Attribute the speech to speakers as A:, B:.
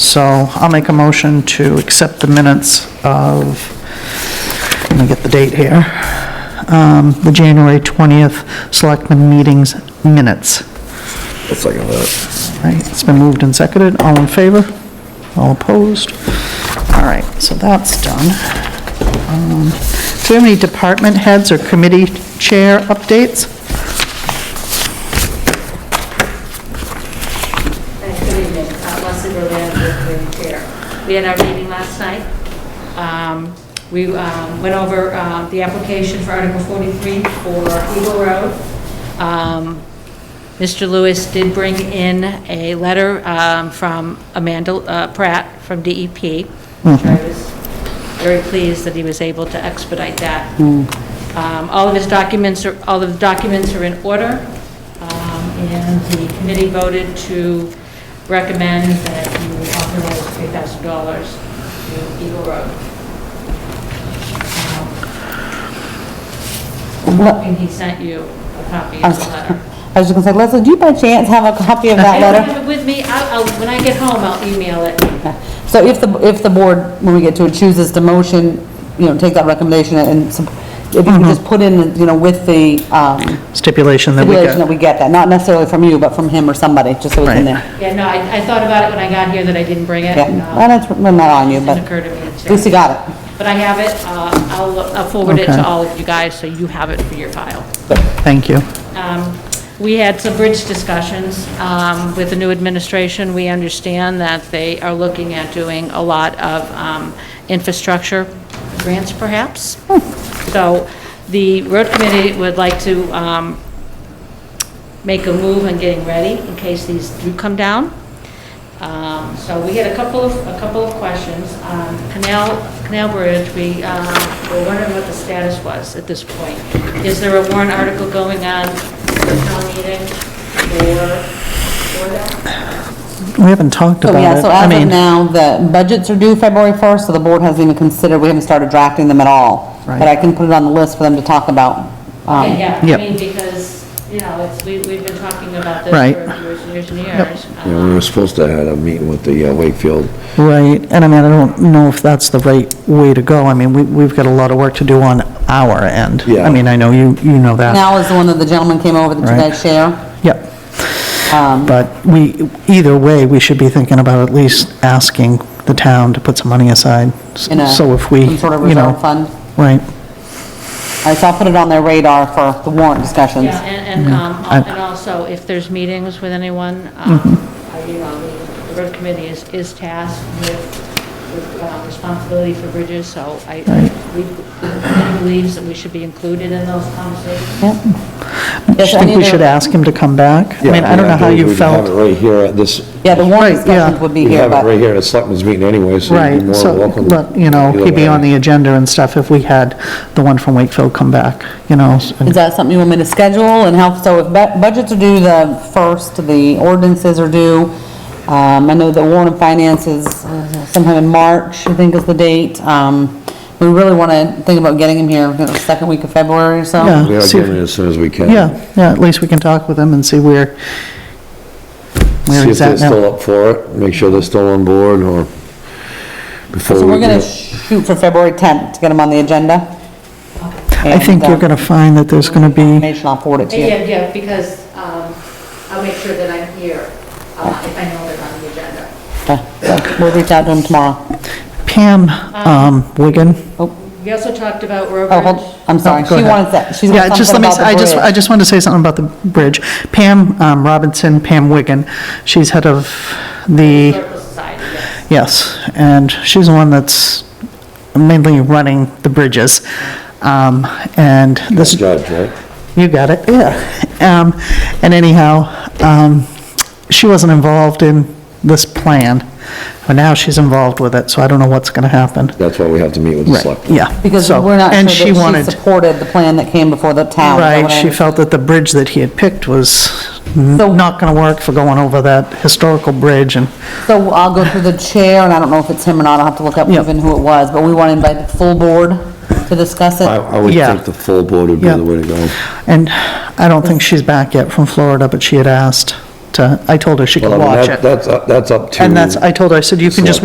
A: So I'll make a motion to accept the minutes of, let me get the date here, um, the January 20th Selectmen Meetings Minutes.
B: I'll second that.
A: Right, it's been moved and seconded. All in favor? All opposed? All right, so that's done. Um, Do we have any department heads or committee chair updates?
C: Thanks, Good evening. Uh, Leslie Berlin, with the chair. We had our meeting last night. Um, We um, went over uh, the application for Article 43 for Eagle Road. Um, Mr. Lewis did bring in a letter um, from Amanda uh, Pratt from DEP, which I was very pleased that he was able to expedite that. Um, All of his documents, are all of the documents are in order. Um, And the committee voted to recommend that you authorize $3,000 to Eagle Road. Um, And he sent you a copy of the letter.
D: uh, I was just gonna say, Leslie, do you by chance have a copy of
C: I
D: Oh, that
C: don't
D: letter?
C: have it with me. I'll, I'll- when I get home, I'll email it.
D: So if the, if the board, when we get to it, chooses to motion, you know, take that recommendation and, sup- if you
A: Mm-hmm.
D: could just put in, you know, with the, um,
A: Stipulation that we
D: stipulation that
A: got.
D: we get that, not necessarily from you, but from him or somebody, just so it's
A: Right.
D: in there.
C: Yeah, no, I, I thought about it when I got here that I didn't bring it.
D: Yeah,
C: Um,
D: and it's, well, not on you,
C: It
D: but
C: didn't occur to me.
D: at least you
C: to-
D: got it.
C: But I have it. Uh, I'll, I'll forward it
A: Okay.
C: to all of you guys, so you have it for your file.
A: Thank you.
C: Um, We had some bridge discussions um, with the new administration. We understand that they are looking at doing a lot of um, infrastructure grants, perhaps. So the road committee would like to um, make a move on getting ready in case these do come down. Um, So we had a couple of, a couple of questions. Um, Canal, Canal Bridge, we um, were wondering what the status was at this point. Is there a warrant article going on for town meeting or, or that?
A: We haven't talked
D: So,
A: about
D: Oh, yeah,
A: it.
D: so
A: I
D: as of
A: mean,
D: now, the budgets are due February 1st, so the board hasn't even considered, we haven't started drafting them at all.
A: Right.
D: But I can put it on the list for them to talk about. um,
C: Yeah,
A: Yep.
C: I mean, because, you know, it's, we, we've been talking about this
A: Right.
C: for years and years and years.
B: Yeah, we were supposed to have a meeting with the uh, Wakefield.
A: Right, and I mean, I don't know if that's the right way to go. I mean, we, we've got a lot of work to do on our end.
B: Yeah.
A: I mean, I know you, you know that.
D: Now is the one that the gentleman came over to
A: Right.
D: that share.
A: Yep,
D: Um,
A: but we, either way, we should be thinking about at least asking the town to put some money aside.
D: in a,
A: So if we,
D: some sort of
A: you know.
D: reserve fund.
A: Right,
D: All right, so I'll put it on their radar for the warrant discussions.
C: Yeah, and,
D: Mm-hmm.
C: and, um,
A: I-
C: and also, if there's meetings with anyone, um,
D: Mm-hmm.
C: uh, you know, the road committee is, is tasked with, with um, responsibility for bridges, so I, we, the committee believes that we should be included in those conversations.
A: I
D: Yes, I
A: think
D: need
A: we
D: to-
A: should ask him to come back. I mean, I don't know how you
B: We have
A: felt.
B: it right here at this,
D: Yeah, the warrant
A: Right, yeah.
D: discussions would be
B: we
D: here,
B: have it
D: but
B: right here at Selectmen's meeting anyway, so you'd be
A: Right,
B: more
A: so,
B: than welcome.
A: look, you know,
B: either
A: he'd be
B: way.
A: on the agenda and stuff if we had the one from Wakefield come back, you know. and-
D: is that something you want me to schedule and help? So if bu- budgets are due the first, the ordinances are due. Um, I know the warrant and finance is uh, sometime in March, I think is the date. Um, we really want to think about getting him here, you know, the second week of February or so.
A: Yeah.
B: We are
A: See if-
B: getting it as soon as we can.
A: Yeah, yeah, at least we can talk with them and see where, where
B: See if
A: he's
B: they're
A: at now.
B: still up for it, make sure they're still on board or before
D: So
B: we
D: we're
B: do
D: going to
B: it.
D: shoot for February 10th to get him on the agenda. uh,
A: I think you're gonna find that there's gonna be,
D: Information, I'll forward it to you.
C: Yeah, yeah, because, um, I'll make sure that I'm here, uh, if I know they're on the agenda.
D: Okay, so We'll reach out to him tomorrow.
A: Pam, um, Wigan.
C: We also talked about
D: Oh,
C: Robert.
D: hold, I'm Oh, sorry,
A: Oh, go
D: she
A: ahead.
D: wanted that, she's
A: Yeah,
D: got
A: just let
D: something
A: me,
D: about
A: I just, I
D: the
A: just wanted to say something about the bridge. Pam um, Robinson, Pam Wigan, she's head of the,
C: Historical Society, yes.
A: yes, and she's the one that's mainly running the bridges. Um, and this,
B: Judge, right?
A: You got it, yeah. Um, And anyhow, um, she wasn't involved in this plan, but now she's involved with it, so I don't know what's going to happen.
B: That's why we have to meet with the
A: Right,
B: Selectmen.
A: yeah.
D: Because
A: so-
D: we're not
A: and
D: sure that
A: wanted-
D: she supported the plan that came before the town. is that
A: Right,
D: what I
A: she
D: understand?
A: felt that the bridge that he had picked was
D: So-
A: not going to work for going over that historical bridge, and,
D: So I'll go through the chair, and I don't know if it's him or not, I'll have to look up
A: Yeah.
D: even who it was, but we want to invite the full board to discuss
B: I,
D: it.
B: I would
A: Yeah.
B: think the full board would be
A: Yeah.
B: the way to go.
A: and I don't think she's back yet from Florida, but she had asked.
B: to, I told her she could
A: Well, I mean,
B: watch
A: that-
B: it.
A: That's, up- that's up to.
B: And that's, I told her, I said, you can just